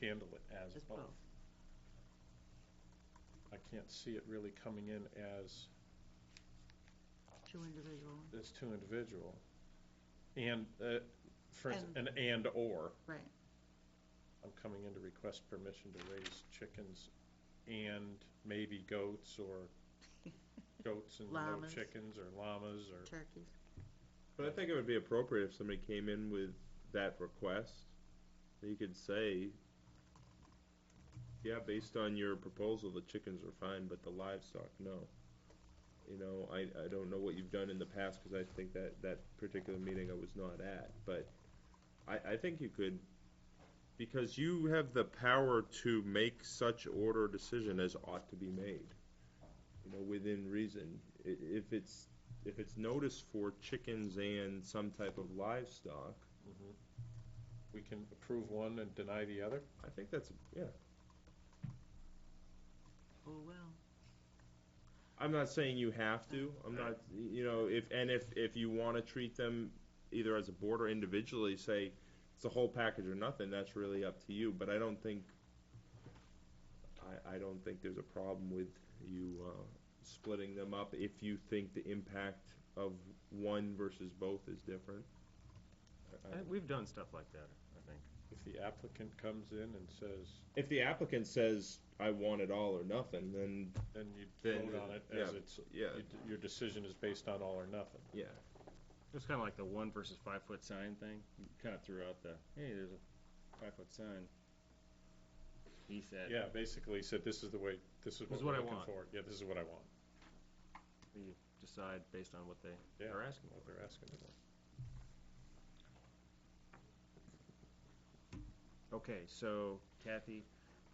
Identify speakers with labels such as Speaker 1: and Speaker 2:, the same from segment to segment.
Speaker 1: handle it as
Speaker 2: As
Speaker 1: both.
Speaker 2: both.
Speaker 1: I can't see it really coming in as,
Speaker 2: two individual,
Speaker 1: as two individual. And, uh, for, ins-
Speaker 2: And-
Speaker 1: an and/or.
Speaker 2: right.
Speaker 1: I'm coming in to request permission to raise chickens and maybe goats or goats and no
Speaker 2: Llamas.
Speaker 1: chickens or llamas or.
Speaker 2: Turkeys.
Speaker 3: But I think it would be appropriate if somebody came in with that request, that you could say, yeah, based on your proposal, the chickens are fine, but the livestock, no. You know, I, I don't know what you've done in the past, because I think that, that particular meeting I was not at, but I, I think you could, because you have the power to make such order or decision as ought to be made, you know, within reason. I- if it's if it's noticed for chickens and some type of livestock,
Speaker 1: Mhm. We can approve one and deny the other?
Speaker 3: I think that's, yeah.
Speaker 2: Oh, well.
Speaker 3: I'm not saying you have to, I'm not, you know, if, and if, if you wanna treat them either as a board or individually, say, it's the whole package or nothing, that's really up to you, but I don't think, I, I don't think there's a problem with you, uh, splitting them up if you think the impact of one versus both is different. I- I
Speaker 4: I-
Speaker 3: don't-
Speaker 4: We've done stuff like that, I think.
Speaker 1: If the applicant comes in and says,
Speaker 3: If the applicant says, I want it all or nothing, then
Speaker 1: then you
Speaker 3: Then
Speaker 1: vote
Speaker 3: it-
Speaker 1: on it as
Speaker 3: yeah,
Speaker 1: it's,
Speaker 3: yeah.
Speaker 1: you d- your decision is based on all or nothing.
Speaker 3: Yeah,
Speaker 4: It's kind of like the one versus five foot sign thing. You kind of threw out the, hey, there's a five foot sign. He said,
Speaker 1: Yeah, basically said, this is the way, this is
Speaker 4: This
Speaker 1: what
Speaker 4: is
Speaker 1: we're
Speaker 4: what I
Speaker 1: looking
Speaker 4: want.
Speaker 1: for. Yeah, this is what I want,
Speaker 4: we decide based on what they
Speaker 1: Yeah.
Speaker 4: are asking.
Speaker 1: what they're asking for.
Speaker 4: Okay, so Kathy,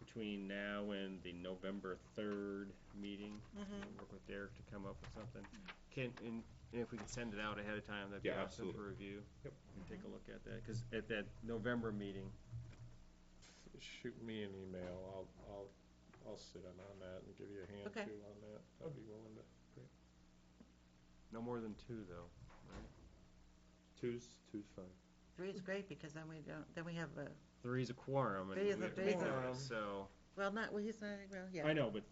Speaker 4: between now and the November third meeting,
Speaker 2: Mm-hmm.
Speaker 4: we'll work with Derek to come up with something. Can, and and if we can send it out ahead of time, that'd be
Speaker 3: Yeah,
Speaker 4: awesome
Speaker 3: absolutely.
Speaker 4: for review.
Speaker 1: Yep.
Speaker 4: And take a look at that, because at that November meeting,
Speaker 1: Shoot me an email, I'll, I'll, I'll sit in on that and give you a hand
Speaker 2: Okay.
Speaker 1: too on that. I'd be willing to.
Speaker 4: no more than two though.
Speaker 3: two's, two's fine.
Speaker 2: Three is great because then we don't, then we have a,
Speaker 4: Three's a quorum. and
Speaker 2: Three is a
Speaker 4: we have to
Speaker 2: big
Speaker 4: do it,
Speaker 1: one.
Speaker 4: So,
Speaker 2: well, not, well, he's not, well, yeah.
Speaker 4: I know, but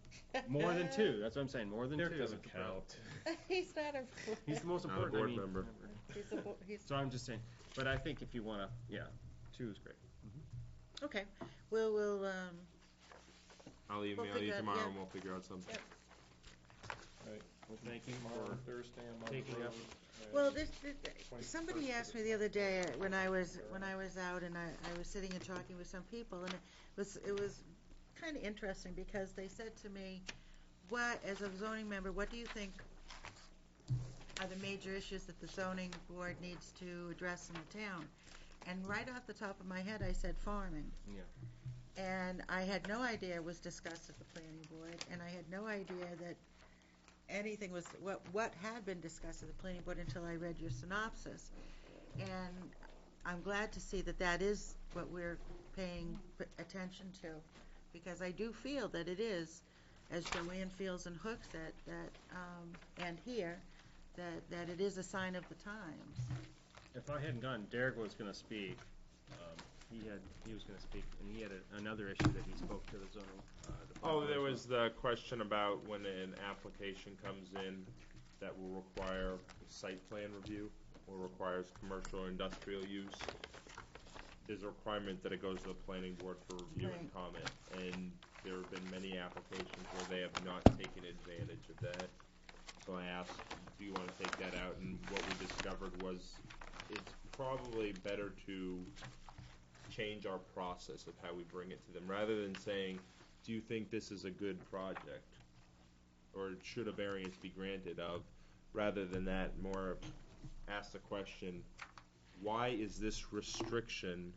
Speaker 4: More than two. That's what I'm saying. More than
Speaker 1: Derek
Speaker 4: two.
Speaker 1: doesn't
Speaker 4: That's the problem.
Speaker 1: count.
Speaker 2: He's not a.
Speaker 4: He's the most
Speaker 3: Not a
Speaker 4: important.
Speaker 3: board
Speaker 4: I mean,
Speaker 3: member.
Speaker 2: He's a, bo- he's,
Speaker 4: So I'm just saying. But I think if you want to, yeah, two is great.
Speaker 2: okay, we'll, we'll, um,
Speaker 3: I'll email you
Speaker 2: figure out-
Speaker 3: tomorrow
Speaker 2: yeah.
Speaker 3: and we'll figure out something.
Speaker 4: Well, thank you
Speaker 1: Tomorrow,
Speaker 4: for
Speaker 1: Thursday, I'm on the
Speaker 4: taking up.
Speaker 1: road, and
Speaker 2: Well, this, this- somebody asked me the other day uh, when I was, when I was out and I, I was sitting and talking with some people and it was, it was kind of interesting because they said to me, what, as a zoning member, what do you think are the major issues that the zoning board needs to address in the town? And right off the top of my head, I said farming.
Speaker 4: Yeah.
Speaker 2: And I had no idea it was discussed at the planning board, and I had no idea that anything was, what, what had been discussed at the planning board until I read your synopsis. And I'm glad to see that that is what we're paying p- attention to, because I do feel that it is, as Joanne feels and Hooks that, that, um, and here, that, that it is a sign of the times.
Speaker 4: If I hadn't gone, Derek was going to speak. Um, he had he was going to speak, and he had a, another issue that he spoke to the zoning.
Speaker 3: Oh,
Speaker 4: Uh, department
Speaker 3: there
Speaker 4: as
Speaker 3: was the question about when an application comes in that will require site plan review or requires commercial or industrial use. There's a requirement that it goes to the planning board for review and
Speaker 2: Right.
Speaker 3: comment, and there have been many applications where they have not taken advantage of that. So I asked, do you wanna take that out, and what we discovered was it's probably better to change our process of how we bring it to them, rather than saying, do you think this is a good project? Or should a variance be granted of, rather than that, more ask the question, why is this restriction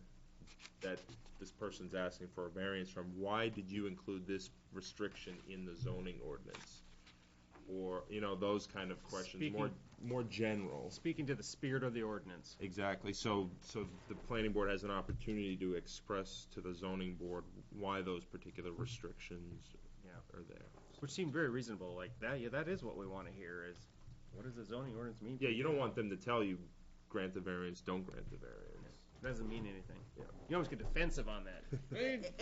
Speaker 3: that this person's asking for a variance from, why did you include this restriction in the zoning ordinance? Or, you know, those kind of questions, more, more general.
Speaker 4: well. Speaking to the spirit of the ordinance.
Speaker 3: Exactly, so, so the planning board has an opportunity to express to the zoning board why those particular restrictions
Speaker 4: Yeah.
Speaker 3: are there.
Speaker 4: Which seemed very reasonable, like that, yeah, that is what we want to hear is, what does the zoning ordinance mean?
Speaker 3: Yeah, you don't want them to tell you, grant the variance, don't grant the variance.
Speaker 4: Doesn't mean anything.
Speaker 3: Yeah.
Speaker 4: You almost get defensive on that.
Speaker 2: And-